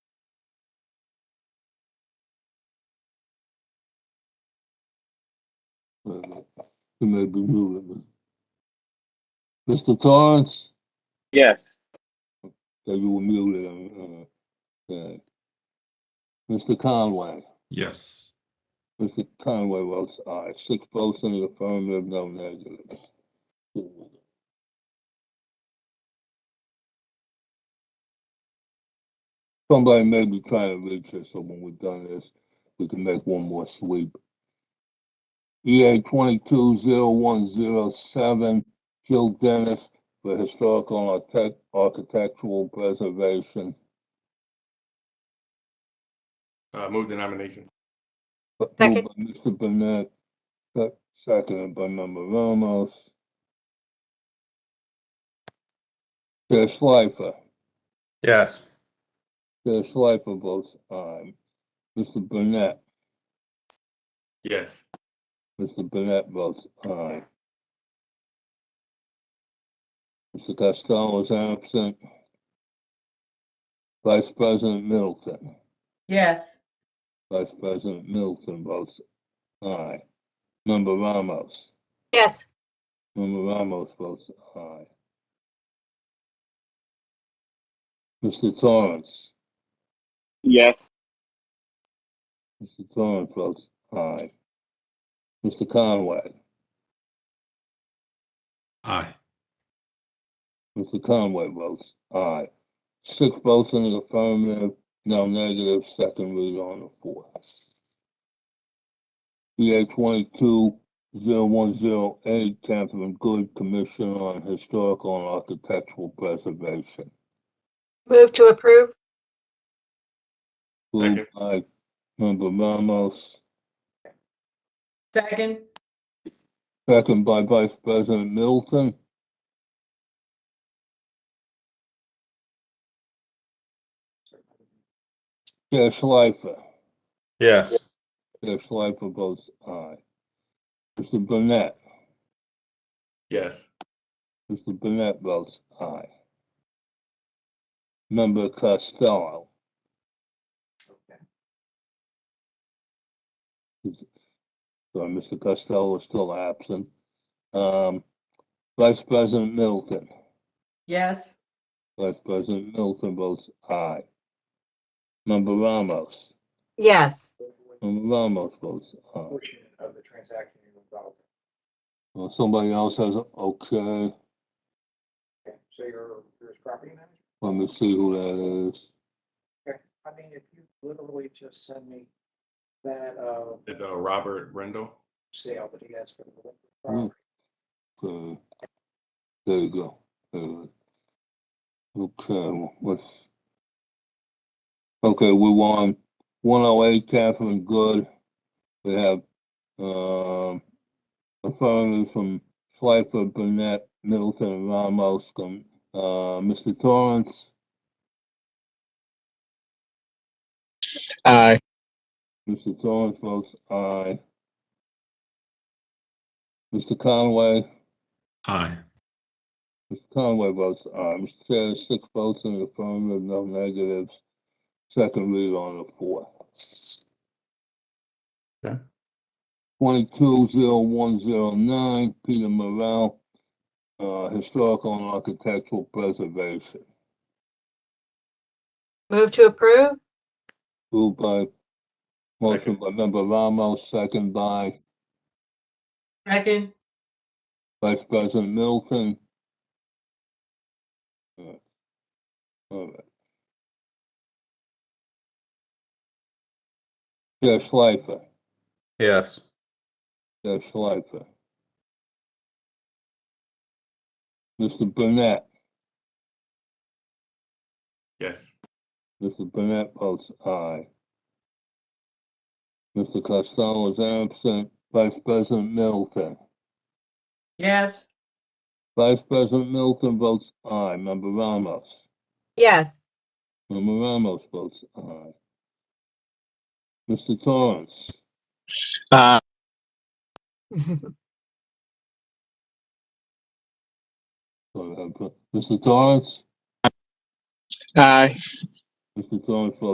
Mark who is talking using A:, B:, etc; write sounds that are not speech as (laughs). A: We may be ruling. Mr. Torrance,
B: Yes.
A: so you were muted. um, uh, uh, Mr. Conway,
C: Yes.
A: Mr. Conway votes aye. Six votes in the affirmative, no negatives. Somebody may be trying to reach us, so when we're done this, we can make one more sweep. EA twenty-two zero one zero seven, Jill Dennis for Historical and Architect- Architectural Preservation.
D: Uh, move the nomination.
A: But
E: Second.
A: moved by Mr. Burnett, sec- seconded by Member Ramos. Chair Schleifer,
C: Yes.
A: Chair Schleifer votes aye. Mr. Burnett,
D: Yes.
A: Mr. Burnett votes aye. Mr. Costello is absent. Vice President Middleton,
F: yes,
A: Vice President Middleton votes aye. Member Ramos.
E: yes,
A: Member Ramos votes aye. Mr. Torrance,
B: Yes.
A: Mr. Torrance votes aye. Mr. Conway,
C: Aye.
A: Mr. Conway votes aye. Six votes in the affirmative, no negative, second read on the fourth. EA twenty-two zero one zero eight, Catherine Good, Commission on Historical and Architectural Preservation.
E: move to approve,
A: Moved by Member Ramos.
F: second,
A: Second by Vice President Middleton. Chair Schleifer,
C: Yes.
A: Chair Schleifer votes aye. Mr. Burnett,
D: Yes.
A: Mr. Burnett votes aye. Member Costello. Is- Sorry, Mr. Costello is still absent. Um, Vice President Middleton.
F: yes,
A: Vice President Middleton votes aye. Member Ramos.
E: yes,
A: Member Ramos votes aye.
G: portion of the transaction you're involved
A: Well, somebody else has, a- okay,
G: in. Okay, So you're, you're his property manager?
A: let me see who that is.
G: Okay, I mean, if you literally just send me that, uh,
D: It's uh, Robert Rendell.
G: sale that he has for the liquor
A: Hmm.
G: property.
A: Uh, There you go. Uh, Okay, let's. Okay, we won one oh eight, Catherine Good. We have, um, affirmative from Schleifer, Burnett, Middleton, and Ramos, um, uh, Mr. Torrance,
B: Aye.
A: Mr. Torrance votes aye. Mr. Conway.
C: Aye.
A: Mr. Conway votes aye. Mr. Chair, six votes in the affirmative, no negatives. Second read on the fourth.
C: Okay.
A: Twenty-two zero one zero nine, Peter Morrell, uh, Historical and Architectural Preservation.
E: move to approve,
A: Moved by, motion by member Ramos, second by
F: second,
A: Vice President Middleton. All right. All right. Chair Schleifer,
C: Yes.
A: Chair Schleifer. Mr. Burnett,
D: Yes.
A: Mr. Burnett votes aye. Mr. Costello is absent. Vice President Middleton.
F: yes,
A: Vice President Middleton votes aye. Member Ramos.
E: yes,
A: Member Ramos votes aye. Mr. uh, Torrance,
B: Aye.
A: (laughs) sorry, I put- Mr. Torrance,
B: Aye.
A: Mr. Torrance votes